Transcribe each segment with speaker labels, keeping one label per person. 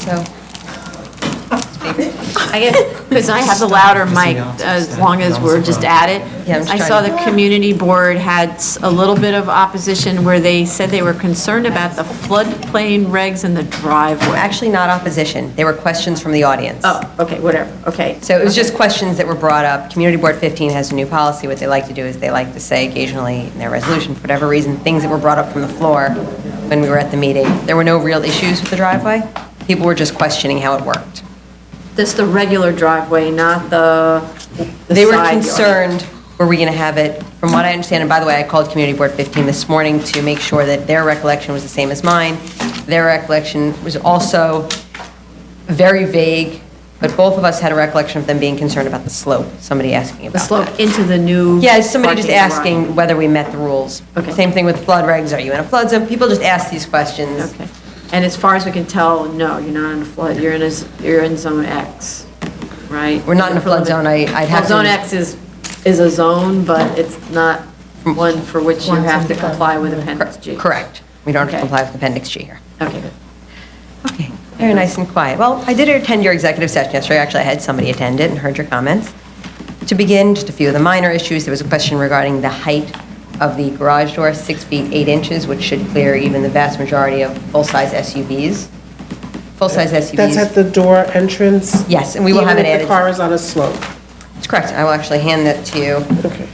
Speaker 1: So,
Speaker 2: I guess, because I have the louder mic, as long as we're just at it.
Speaker 1: Yeah, I'm just
Speaker 2: I
Speaker 1: trying
Speaker 2: saw
Speaker 1: to-
Speaker 2: the community board had s- a little bit of opposition where they said they were concerned about the floodplain regs and the driveway.
Speaker 1: actually not opposition, they were questions from the audience.
Speaker 2: Oh, okay, whatever, okay.
Speaker 1: So it was just questions that were brought up. Community Board 15 has a new policy. What they like to do is they like to say occasionally in their resolution, for whatever reason, things that were brought up from the floor when we were at the meeting. There were no real issues with the driveway. People were just questioning how it worked.
Speaker 2: This the regular driveway, not the the
Speaker 1: They were
Speaker 2: side yard.
Speaker 1: concerned, were we going to have it, from what I understand, and by the way, I called Community Board 15 this morning to make sure that their recollection was the same as mine. Their recollection was also very vague, but both of us had a recollection of them being concerned about the slope, somebody asking about
Speaker 2: The
Speaker 1: that.
Speaker 2: slope into the new.
Speaker 1: Yeah, somebody just
Speaker 2: parking lot.
Speaker 1: asking whether we met the rules.
Speaker 2: Okay.
Speaker 1: Same thing with flood regs, are you in a flood zone? People just ask these questions.
Speaker 2: Okay. And as far as we can tell, no, you're not in a flood, you're in a, s- you're in zone X, right?
Speaker 1: We're not in a flood zone. I- I'd have
Speaker 2: Well,
Speaker 1: to-
Speaker 2: Zone X is, is a zone, but it's not
Speaker 1: Mm.
Speaker 2: one for which you have to comply with Appendix G.
Speaker 1: Correct. We don't have to
Speaker 2: Okay.
Speaker 1: comply with Appendix G here.
Speaker 2: Okay, good.
Speaker 1: Okay, very nice and quiet. Well, I did attend your executive session yesterday. Actually, I had somebody attend it and heard your comments. To begin, just a few of the minor issues. There was a question regarding the height of the garage door, six feet, eight inches, which should clear even the vast majority of full-size SUVs. Full-size SUVs.
Speaker 3: That's at the door entrance?
Speaker 1: Yes, and we will have it
Speaker 3: Even if
Speaker 1: added.
Speaker 3: the car is on a slope?
Speaker 1: That's correct. I will actually hand that to you.
Speaker 3: Okay,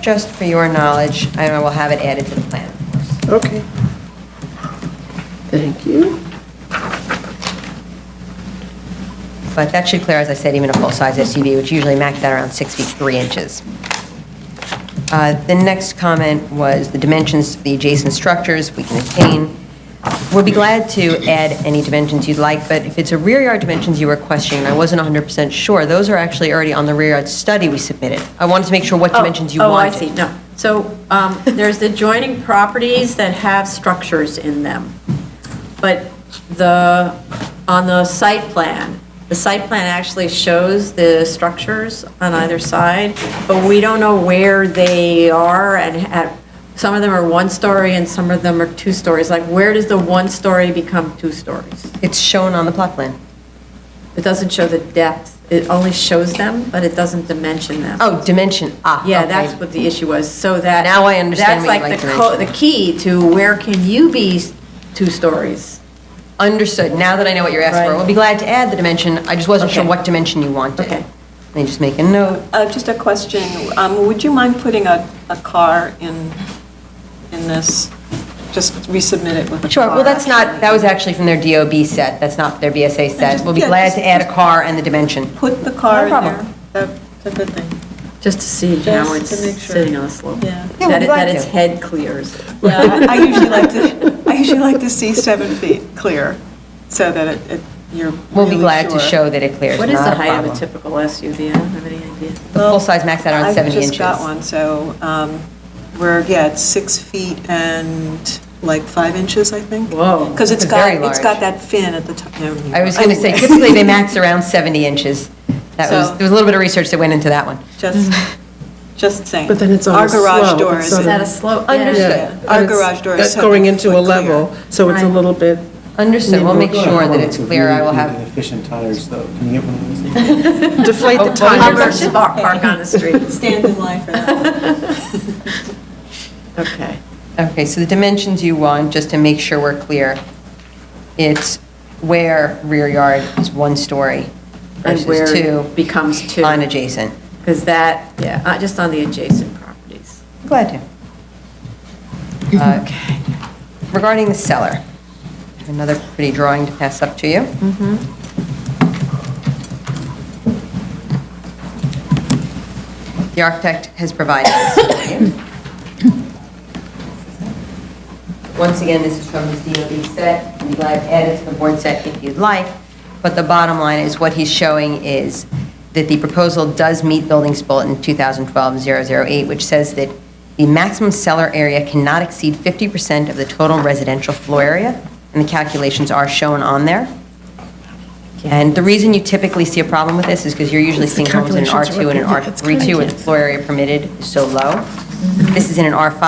Speaker 1: Just for your knowledge, and I will have it added to the plan, of course.
Speaker 3: okay. Thank you.
Speaker 1: But that should clear, as I said, even a full-size SUV, which usually max out around six feet, three inches. Uh, The next comment was the dimensions of the adjacent structures we can attain. We'll be glad to add any dimensions you'd like, but if it's a rear yard dimensions you were questioning, and I wasn't 100% sure, those are actually already on the rear yard study we submitted. I wanted to make sure what
Speaker 2: Oh,
Speaker 1: dimensions you
Speaker 2: Oh, I
Speaker 1: wanted.
Speaker 2: see, no. So um, there's adjoining properties that have structures in them, but the, on the site plan, the site plan actually shows the structures on either side, but we don't know where they are and at, some of them are one story and some of them are two stories. Like, where does the one story become two stories?
Speaker 1: It's shown on the plot plan.
Speaker 2: It doesn't show the depth, it only shows them, but it doesn't dimension them.
Speaker 1: Oh, dimension, ah,
Speaker 2: Yeah,
Speaker 1: okay.
Speaker 2: that's what the issue was, so that.
Speaker 1: Now I understand what you'd like to
Speaker 2: That's like the co-
Speaker 1: mention.
Speaker 2: the key to where can you be s- two stories?
Speaker 1: Understood. Now that I know what you're asking for,
Speaker 2: Right.
Speaker 1: we'll be glad to add the dimension. I just wasn't sure
Speaker 2: Okay.
Speaker 1: what dimension you wanted.
Speaker 2: Okay.
Speaker 1: Let me just make a note.
Speaker 4: Uh, Just a question. Um, Would you mind putting a, a car in, in this? Just resubmit it with a car.
Speaker 1: Sure, well, that's not,
Speaker 4: actually.
Speaker 1: that was actually from their DOB set, that's not their BSA set.
Speaker 4: just-
Speaker 1: We'll be
Speaker 4: yeah,
Speaker 1: glad
Speaker 4: just-
Speaker 1: to add a car and the dimension.
Speaker 4: Put the car in
Speaker 1: No
Speaker 4: there.
Speaker 1: problem.
Speaker 4: That- That's a good thing.
Speaker 2: Just to see how
Speaker 4: Just
Speaker 2: it's
Speaker 4: to make sure.
Speaker 2: sitting on a slope.
Speaker 4: Yeah.
Speaker 1: Yeah,
Speaker 2: That
Speaker 1: we'd
Speaker 2: it-
Speaker 1: like
Speaker 2: that its
Speaker 1: to.
Speaker 2: head clears.
Speaker 4: Yeah, I- I usually like to, I usually like to see seven feet clear, so that it- it, you're
Speaker 1: We'll be
Speaker 4: really
Speaker 1: glad to
Speaker 4: sure.
Speaker 1: show that it clears,
Speaker 2: What is
Speaker 1: not
Speaker 2: the
Speaker 1: a
Speaker 2: height of a
Speaker 1: problem.
Speaker 2: typical SUV? I don't have any idea.
Speaker 1: The
Speaker 4: Well,
Speaker 1: full-size max out around 70
Speaker 4: I've just got
Speaker 1: inches.
Speaker 4: one, so um, we're, yeah, it's six feet and like five inches, I think.
Speaker 2: Whoa.
Speaker 4: Because it's
Speaker 1: That's very
Speaker 4: got, it's
Speaker 1: large.
Speaker 4: got that fin at the top.
Speaker 1: I was going to say, typically they max around 70 inches. That was,
Speaker 4: So-
Speaker 1: there was a little bit of research that went into that one.
Speaker 4: Just, just saying.
Speaker 3: Mm. But then it's on a
Speaker 4: Our
Speaker 3: slope,
Speaker 4: garage door
Speaker 3: it's
Speaker 4: is.
Speaker 3: on
Speaker 2: Is that a slope?
Speaker 1: Understood.
Speaker 4: Yeah. Our
Speaker 3: And it's-
Speaker 4: garage door is
Speaker 3: that's
Speaker 4: seven
Speaker 3: Going into
Speaker 4: foot
Speaker 3: a level,
Speaker 4: clear.
Speaker 3: so it's a
Speaker 2: Right.
Speaker 3: little bit,
Speaker 1: Understood, we'll make sure that it's
Speaker 5: Really
Speaker 1: clear, I will
Speaker 5: need
Speaker 1: have,
Speaker 5: Efficient tires, though. Can you get one of those?
Speaker 3: deflate the
Speaker 2: Hummer
Speaker 3: tires.
Speaker 2: spot park on the street.
Speaker 4: Stand in line for that.
Speaker 2: Okay.
Speaker 1: okay, so the dimensions you want, just to make sure we're clear. It's where rear yard is one story
Speaker 2: And
Speaker 1: versus
Speaker 2: where
Speaker 1: two
Speaker 2: it becomes two.
Speaker 1: on adjacent.
Speaker 2: Because that, yeah, uh, just on the adjacent properties.
Speaker 1: Glad to. Uh, Regarding the cellar, I have another pretty drawing to pass up to you.
Speaker 2: Mm-hmm.
Speaker 1: The architect has provided this. Once again, this is from his DOB set, we'd be glad to add it to the board set if you'd like, but the bottom line is, what he's showing is that the proposal does meet Buildings Bulletin 2012-008, which says that the maximum cellar area cannot exceed 50% of the total residential floor area, and the calculations are shown on there. And the reason you typically see a problem with this is because you're usually
Speaker 3: It's the
Speaker 1: seeing homes in an
Speaker 3: calculations are
Speaker 1: R2 and an
Speaker 3: what- yeah, it's
Speaker 1: R32, where the floor area permitted is so low. This is in an R5